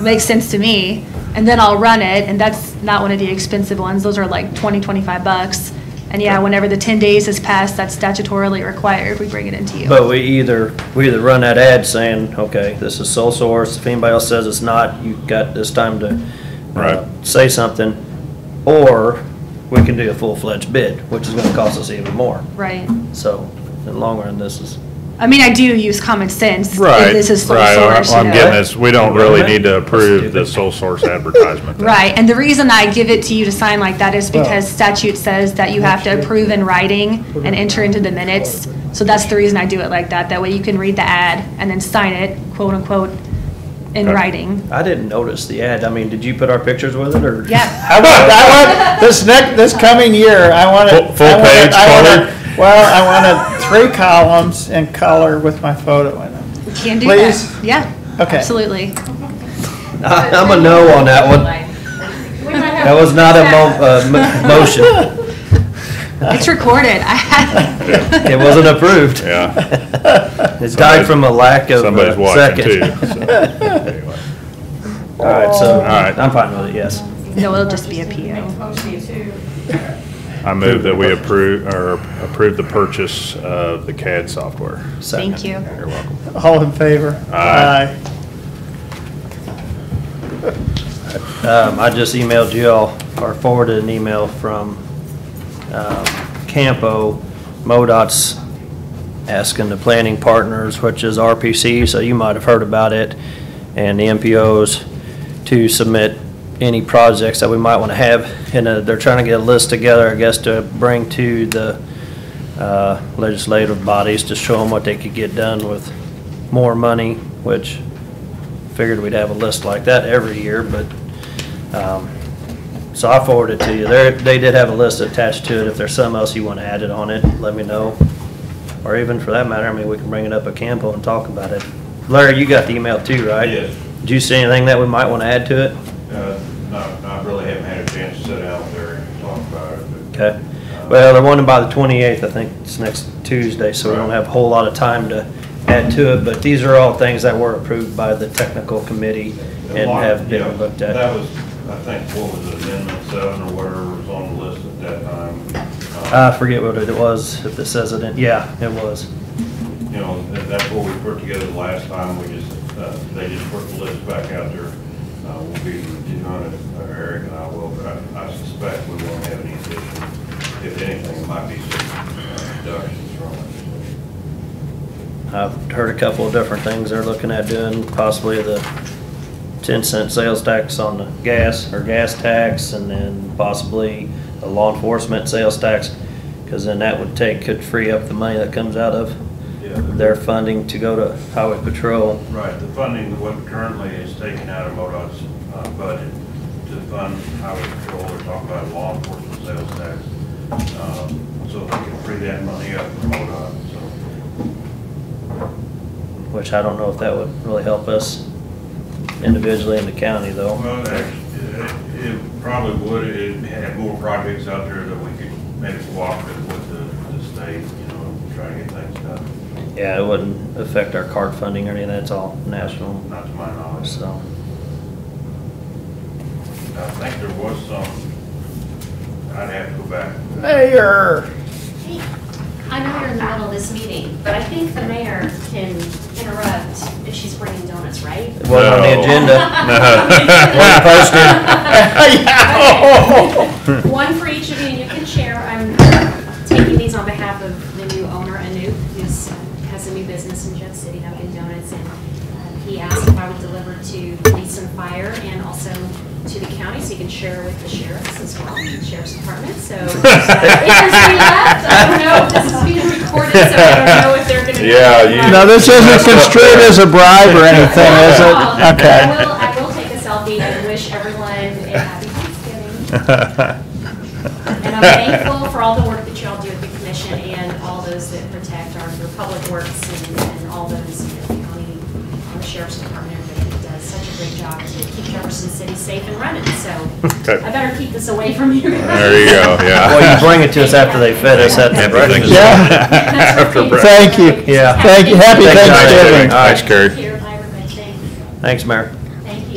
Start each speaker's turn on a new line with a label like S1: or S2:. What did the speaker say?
S1: makes sense to me, and then I'll run it, and that's not one of the expensive ones, those are like 20, 25 bucks. And yeah, whenever the 10 days has passed, that's statutorily required, we bring it into you.
S2: But we either, we either run that ad saying, okay, this is sole source, if anybody else says it's not, you've got this time to uh,
S3: Right.
S2: say something, or we can do a full-fledged bid, which is gonna cost us even more.
S1: Right.
S2: So, in the long run, this is,
S1: I mean, I do use common sense. if
S3: Right,
S1: This is sole
S3: right,
S1: source, you
S3: I'm
S1: know.
S3: getting this, we don't really need to approve the
S2: Stupid.
S3: sole source advertisement. thing.
S1: Right, and the reason I give it to you to sign like that is because statute says that you have to approve in writing and enter into the minutes. So that's the reason I do it like that. That way you can read the ad and then sign it, quote unquote, in
S3: Okay.
S1: writing.
S2: I didn't notice the ad, I mean, did you put our pictures with it, or?
S1: Yep.
S4: I want, I want, this next, this coming year, I want
S3: Full-
S4: it.
S3: full
S4: I want it-
S3: page
S4: I want it-
S3: color?
S4: Well, I want it three columns in color with my photo in it.
S1: You Can do
S4: Please?
S1: that. Yeah.
S4: Okay.
S1: Absolutely.
S2: I'm a no on that one, that was not a mo, uh, mo- motion,
S1: It's recorded. I had.
S2: it wasn't approved.
S3: Yeah,
S2: It's died from a lack of
S3: somebody's
S2: uh,
S3: watching too.
S2: second.
S3: so, anyway.
S2: All right, so,
S3: right.
S2: I'm fine with it, yes.
S1: No, it'll just be a PO.
S3: I move that we approve, or approve the purchase of the CAD software.
S2: Second.
S1: Thank you.
S3: You're welcome.
S4: All in favor?
S3: Aye.
S2: Um, I just emailed you all, or forwarded an email from, um, Campo, MoDOT's asking the planning partners, which is RPC, so you might have heard about it, and the MPOs to submit any projects that we might want to have, and uh, they're trying to get a list together, I guess, to bring to the uh, legislative bodies to show them what they could get done with more money, which figured we'd have a list like that every year, but, um, so I forwarded it to you. There, they did have a list attached to it. If there's something else you want added on it, let me know. Or even for that matter, I mean, we can bring it up at Campo and talk about it. Larry, you got the email too, right?
S5: Yes.
S2: Did you see anything that we might want to add to it?
S5: Uh, No, no, I really haven't had a chance to sit down there and talk about it, but
S2: Okay. Well, they're wanting by the 28th, I think it's next Tuesday, so we don't have a whole lot of time to add to it. But these are all things that were approved by the technical committee and
S5: Mark,
S2: have
S5: yeah,
S2: been looked at.
S5: That was, I think, what was it, amendment seven or whatever was on the list at that time.
S2: I forget what it was, if it says it in, yeah, it was.
S5: Um, You know, that- that's what we put together last time, we just, uh, they just put the list back out there. Uh, We'll be reviewing it, uh, Eric and I will, but I I suspect we won't have any issue. If anything, it might be some uh, reductions from it.
S2: I've heard a couple of different things they're looking at doing, possibly the ten cent sales tax on the gas or gas tax and then possibly a law enforcement sales tax. Cause then that would take, could free up the money that comes out
S5: Yeah.
S2: of their funding to go to highway patrol.
S5: Right, the funding that what currently is taken out of MoDOT's uh, budget to fund highway patrol, we're talking about law enforcement sales tax. uh, So we can free that money up for MoDOT, so.
S2: Which I don't know if that would really help us individually in the county though.
S5: Well, actually, it it probably would, it had more projects out there that we could maybe cooperative with the, the state, you know, try to get things done,
S2: Yeah, it wouldn't affect our card funding or anything, that's all national,
S5: not to my knowledge.
S2: so.
S5: I think there was some, I'd have to go back.
S4: Mayor,
S6: I know you're in the middle of this meeting, but I think the mayor can interrupt if she's bringing donuts, right?
S2: It wasn't on the
S3: No.
S2: agenda.
S6: Okay. One for each of you, and you can share. I'm taking these on behalf of the new owner, Anoop, who's, uh, has a new business in Jeff City, Dunkin' Donuts, and uh, he asked if I would deliver to police and fire and also to the county, so you can share with the sheriffs as well, the sheriff's department, so. If there's any left, I don't know, if this is being recorded, so I don't know if they're gonna.
S3: Yeah, you-
S4: now this isn't construed as a bribe or anything, is it?
S6: Um,
S4: Okay.
S6: I will, I will take a selfie and wish everyone a happy Thanksgiving. And I'm thankful for all the work that y'all do at the commission and all those that protect our, your public works and, and all those, you know, the county, our sheriff's department, everybody that does such a great job to keep Jefferson City safe and running, so
S3: Okay.
S6: I better keep this away from you.
S3: There you go, yeah.
S2: Well, you bring it to us after they fed us at the
S6: After
S2: breakfast.
S3: Everything's-
S4: Yeah.
S3: After breakfast.
S4: Thank you.
S2: Yeah.
S4: Thank you. Happy
S2: Thank you.
S4: Thanksgiving.
S3: Thanks,
S6: Thank
S3: Carrie.
S6: you. Bye, everybody. Thank you.
S2: Thanks, Mayor.